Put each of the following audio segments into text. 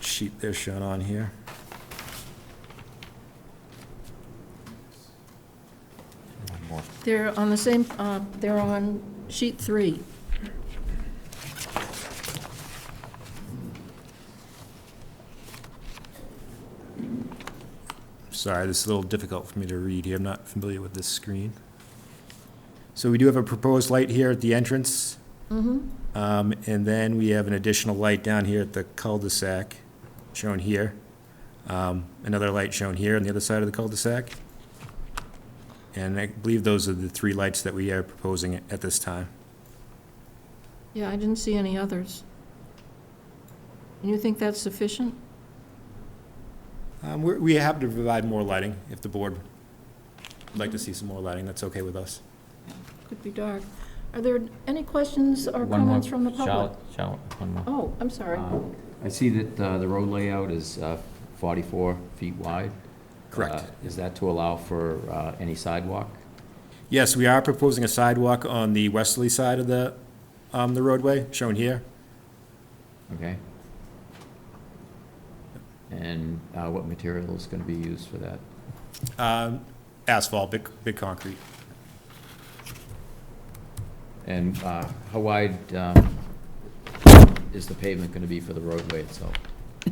sheet there shown on here. One more. They're on the same, uh, they're on sheet three. Sorry, this is a little difficult for me to read here. I'm not familiar with this screen. So we do have a proposed light here at the entrance. Um, and then we have an additional light down here at the cul-de-sac, shown here. Um, another light shown here on the other side of the cul-de-sac. And I believe those are the three lights that we are proposing at this time. Yeah, I didn't see any others. And you think that's sufficient? Um, we're, we have to provide more lighting if the board would like to see some more lighting. That's okay with us. Could be dark. Are there any questions or One more. comments from the public? Charlotte, Charlotte, one more. Oh, I'm sorry. Uh, I see that uh, the road layout is uh, 44 feet wide. Uh, Is that to allow for uh, any sidewalk? Yes, we are proposing a sidewalk on the westerly side of the, um, the roadway, shown here. Okay. And uh, what material is going to be used for that? Um, asphalt, big, big concrete. And uh, how wide um, is the pavement going to be for the roadway itself?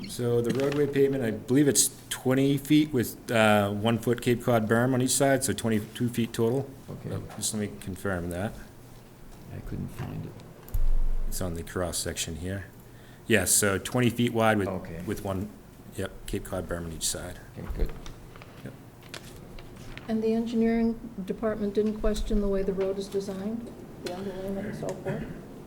So the roadway pavement, I believe it's twenty feet with, uh, one foot Cape Cod berm on each side, so twenty-two feet total. Okay, Just let me confirm that. I couldn't find it. It's on the cross-section here. Yes, so twenty feet wide with, Okay. with one, yep, Cape Cod berm on each side. Okay, good. And the engineering department didn't question the way the road is designed, the underlayment and so forth?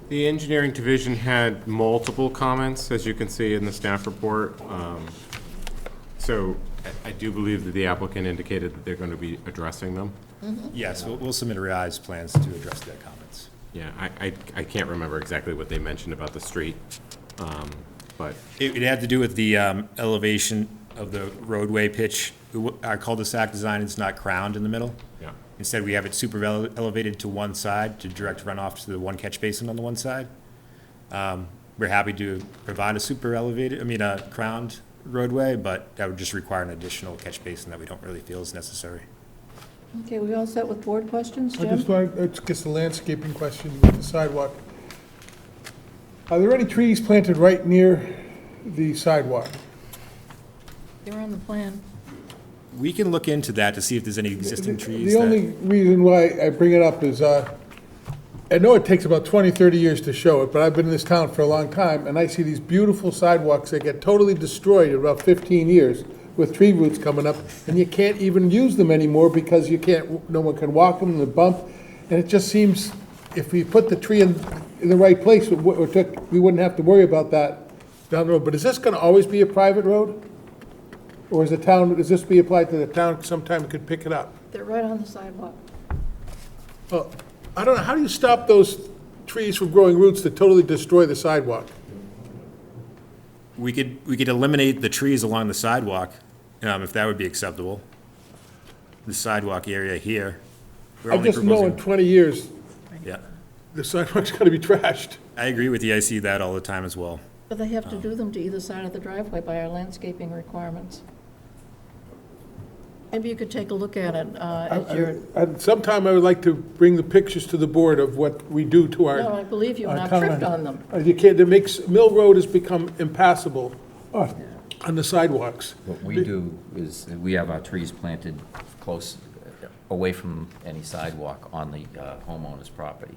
The engineering division had multiple comments, as you can see in the staff report. Um, So I I do believe that the applicant indicated that they're going to be addressing them. Yes, we'll, we'll submit revised plans to address their comments. Yeah, I, I, I can't remember exactly what they mentioned about the street, um, but It, it had to do with the um, elevation of the roadway pitch. It wa- Our cul-de-sac design is not crowned in the middle. Yeah. Instead, we have it super ele- elevated to one side to direct runoff to the one catch basin on the one side. Um, We're happy to provide a super elevated, I mean, a crowned roadway, but that would just require an additional catch basin that we don't really feel is necessary. Okay, we all set with board questions, I just Jim? want, uh, it's just a landscaping question with the sidewalk. Are there any trees planted right near the sidewalk? They're on the plan. We can look into that to see if there's any existing trees The that. only reason why I bring it up is, uh, I know it takes about 20, 30 years to show it, but I've been in this town for a long time, and I see these beautiful sidewalks that get totally destroyed in about 15 years with tree roots coming up, and you can't even use them anymore because you can't, no one can walk them, the bump, and it just seems, if we put the tree in, in the right place, it wou- it took- we wouldn't have to worry about that down the road. But is this gonna always be a private road? Or is the town, does this be applied to the town sometime could pick it up? They're right on the sidewalk. Well, I don't know, how do you stop those trees from growing roots that totally destroy the sidewalk? We could, we could eliminate the trees along the sidewalk, um, if that would be acceptable. The sidewalk area here. we're I only just know in proposing- 20 years, Yeah, the sidewalk's gonna be trashed. I agree with you, I see that all the time as well. But they have to do them to either side of the driveway by our landscaping requirements. Maybe you could take a look at it uh, at your, And sometime I would like to bring the pictures to the board of what we do to no, I our, believe you, and our I've town. tripped on them. Uh, You can't, it makes, Mill Road has become impassable on on the sidewalks. What we do is, that we have our trees planted close, uh, away from any sidewalk on the uh, homeowner's property.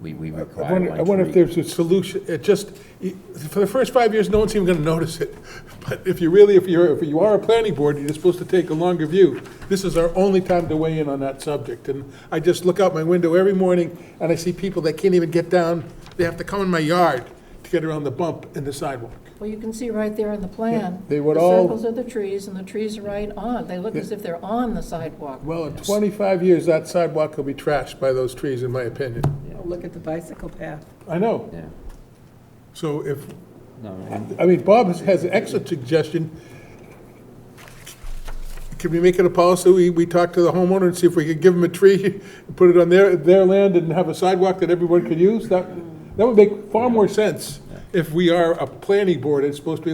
We, we I require one wonder, tree. I wonder if there's a solution, it just, it- for the first five years, no one's even gonna notice it. But if you really, if you're, if you are a planning board, you're supposed to take a longer view. This is our only time to weigh in on that subject, and I just look out my window every morning, and I see people that can't even get down, they have to come in my yard to get around the bump in the sidewalk. Well, you can see right there on the plan. They would The all- circles are the trees, and the trees are right on. They look as if they're on the sidewalk. Well, in twenty-five years, that sidewalk will be trashed by those trees, in my opinion. Oh, Look at the bicycle path. I know, Yeah, so if, no, no, I mean, Bob has- has an excellent suggestion. Can we make it a policy, we, we talk to the homeowner and see if we could give them a tree, put it on their, their land and have a sidewalk that everyone could use? That, that would make far more sense if we are a planning board, it's supposed to be